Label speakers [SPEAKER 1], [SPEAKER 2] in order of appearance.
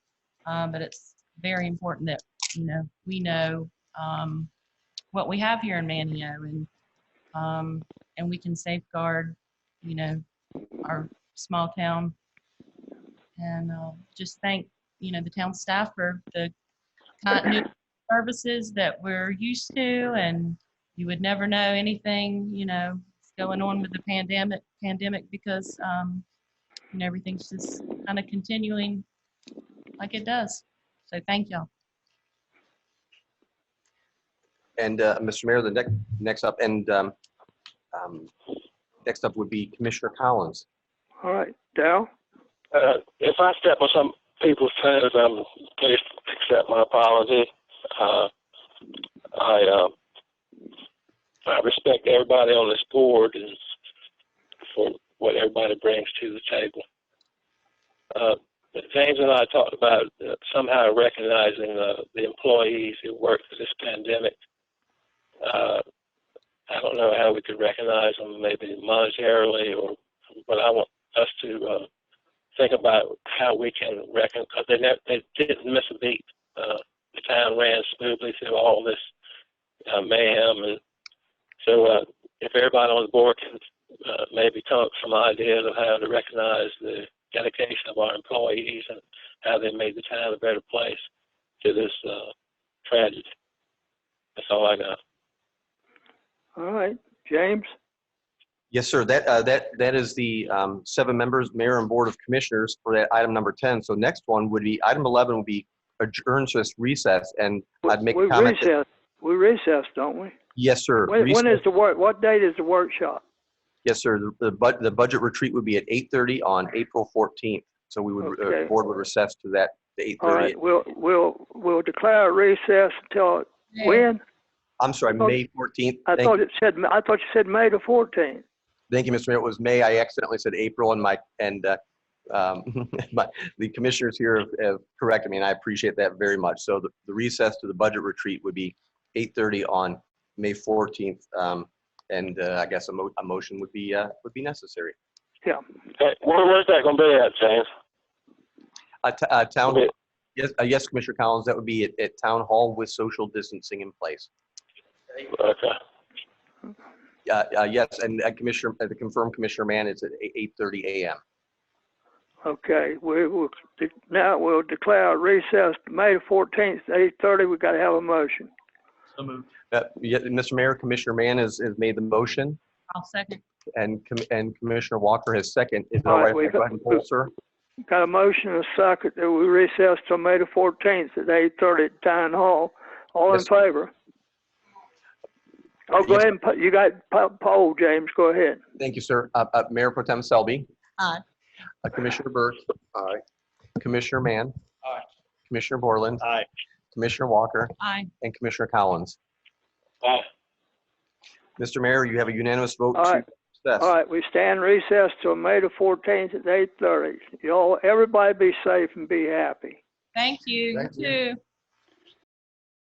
[SPEAKER 1] Um, but it's very important that, you know, we know, um, what we have here in Manio and, um, and we can safeguard, you know, our small town. And, uh, just thank, you know, the town staff for the continuity of services that we're used to and you would never know anything, you know, that's going on with the pandemic, pandemic because, um, you know, everything's just kind of continuing like it does. So thank y'all.
[SPEAKER 2] And uh, Mr. Mayor, the next, next up, and um, um, next up would be Commissioner Collins.
[SPEAKER 3] All right, Dal.
[SPEAKER 4] Uh, if I step on some people's toes, um, please accept my apology. Uh, I, um, I respect everybody on this board and for what everybody brings to the table. Uh, but James and I talked about uh, somehow recognizing uh, the employees who worked through this pandemic. Uh, I don't know how we could recognize them, maybe monetarily, or but I want us to uh, think about how we can reckon because they never, they didn't miss a beat. Uh, the town ran smoothly through all this uh, mayhem, and so uh, if everybody on the board can uh, maybe come up with some ideas of how to recognize the dedication of our employees and how they made the town a better place to this uh, tragedy. That's all I got.
[SPEAKER 3] All right, James.
[SPEAKER 2] Yes, sir. That, uh, that, that is the um, seven members, mayor and board of commissioners for that item number 10. So next one would be, item 11 would be adjourn to this recess, and I'd make
[SPEAKER 3] We
[SPEAKER 2] a comment. that-
[SPEAKER 3] recess, we recess, don't we?
[SPEAKER 2] Yes, sir.
[SPEAKER 3] When, when
[SPEAKER 2] Recess.
[SPEAKER 3] is the work, what date is the workshop?
[SPEAKER 2] Yes, sir. The- The, bud- the budget retreat would be at 8:30 on April 14th. So we would, uh,
[SPEAKER 3] Okay.
[SPEAKER 2] board would recess to that, the
[SPEAKER 3] All right,
[SPEAKER 2] 8:30.
[SPEAKER 3] we'll, we'll, we'll declare a recess until, when?
[SPEAKER 2] I'm sorry,
[SPEAKER 3] I thought-
[SPEAKER 2] May 14th.
[SPEAKER 3] Oh, I
[SPEAKER 2] Thank,
[SPEAKER 3] thought it said, I thought you said May the fourteenth.
[SPEAKER 2] thank you, Mr. Mayor. It was May. I accidentally said April and my, and, uh, um, but the commissioners here have- have corrected me and I appreciate that very much. So the the recess to the budget retreat would be 8:30 on May 14th. um, And uh, I guess a mo, a motion would be, uh, would be necessary.
[SPEAKER 4] Hey, where, where's that going to be at, James?
[SPEAKER 2] Uh, t- uh, Town,
[SPEAKER 4] Okay.
[SPEAKER 2] yes, uh, yes, Commissioner Collins, that would be at, at Town Hall with social distancing in place.
[SPEAKER 4] Okay.
[SPEAKER 2] Uh, uh, Yes, and uh, Commissioner, uh, the confirmed Commissioner Mann is at eight- 8:30 a.m.
[SPEAKER 3] Okay, we will, de- now we'll declare a recess, May the fourteenth, eight thirty, we gotta have a motion.
[SPEAKER 2] Uh, yeah, Mr. Mayor, Commissioner Mann has, has made the motion
[SPEAKER 1] I'll second.
[SPEAKER 2] and, Com- and Commissioner Walker has second. Is it
[SPEAKER 3] All
[SPEAKER 2] all
[SPEAKER 3] right,
[SPEAKER 2] right if
[SPEAKER 3] we
[SPEAKER 2] I go ahead and poll, sir?
[SPEAKER 3] Got a motion and a second that we recess till May the fourteenth at eight thirty at Town Hall. All in
[SPEAKER 2] Yes, sir.
[SPEAKER 3] favor? Oh, go
[SPEAKER 2] Yes.
[SPEAKER 3] ahead and, po- you got po- poll, James, go ahead.
[SPEAKER 2] Thank you, sir. Uh, uh, Mayor Pro Tem Selby.
[SPEAKER 1] Aye.
[SPEAKER 2] Uh, Commissioner Burke. Aye. Commissioner Mann.
[SPEAKER 4] Aye.
[SPEAKER 2] Commissioner Borland.
[SPEAKER 4] Aye.
[SPEAKER 2] Commissioner Walker
[SPEAKER 1] Aye.
[SPEAKER 2] and Commissioner Collins.
[SPEAKER 4] Aye.
[SPEAKER 2] Mr. Mayor, you have a unanimous vote
[SPEAKER 3] All
[SPEAKER 2] to
[SPEAKER 3] right.
[SPEAKER 2] recess.
[SPEAKER 3] All right, we stand recessed till May the fourteenth at eight thirty. Y'all, everybody be safe and be happy.
[SPEAKER 1] Thank you. You
[SPEAKER 2] Thank you.
[SPEAKER 1] too.